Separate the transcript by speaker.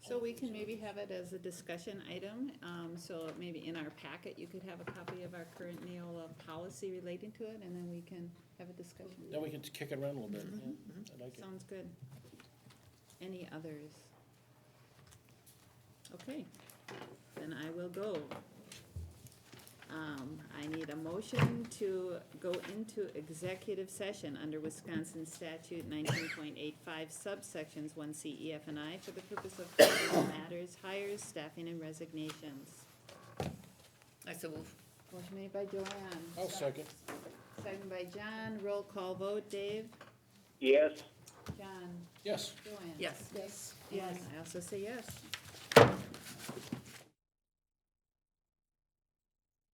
Speaker 1: we can maybe have it as a discussion item, um, so maybe in our packet, you could have a copy of our current Neola policy relating to it, and then we can have a discussion.
Speaker 2: Now we can kick it around a little bit.
Speaker 1: Mm-hmm.
Speaker 2: Yeah, I like it.
Speaker 1: Sounds good. Any others? Okay, then I will go. Um, I need a motion to go into executive session under Wisconsin statute nineteen point eight five subsections one C E F and I for the purpose of personnel matters, hires, staffing, and resignations.
Speaker 3: I so move.
Speaker 1: Motion made by Joanne,
Speaker 2: I'll Oh, second.
Speaker 1: second by John, roll call vote, Dave?
Speaker 4: Yes.
Speaker 1: John.
Speaker 2: Yes.
Speaker 1: Joanne?
Speaker 3: Yes.
Speaker 1: Yes. I also say yes.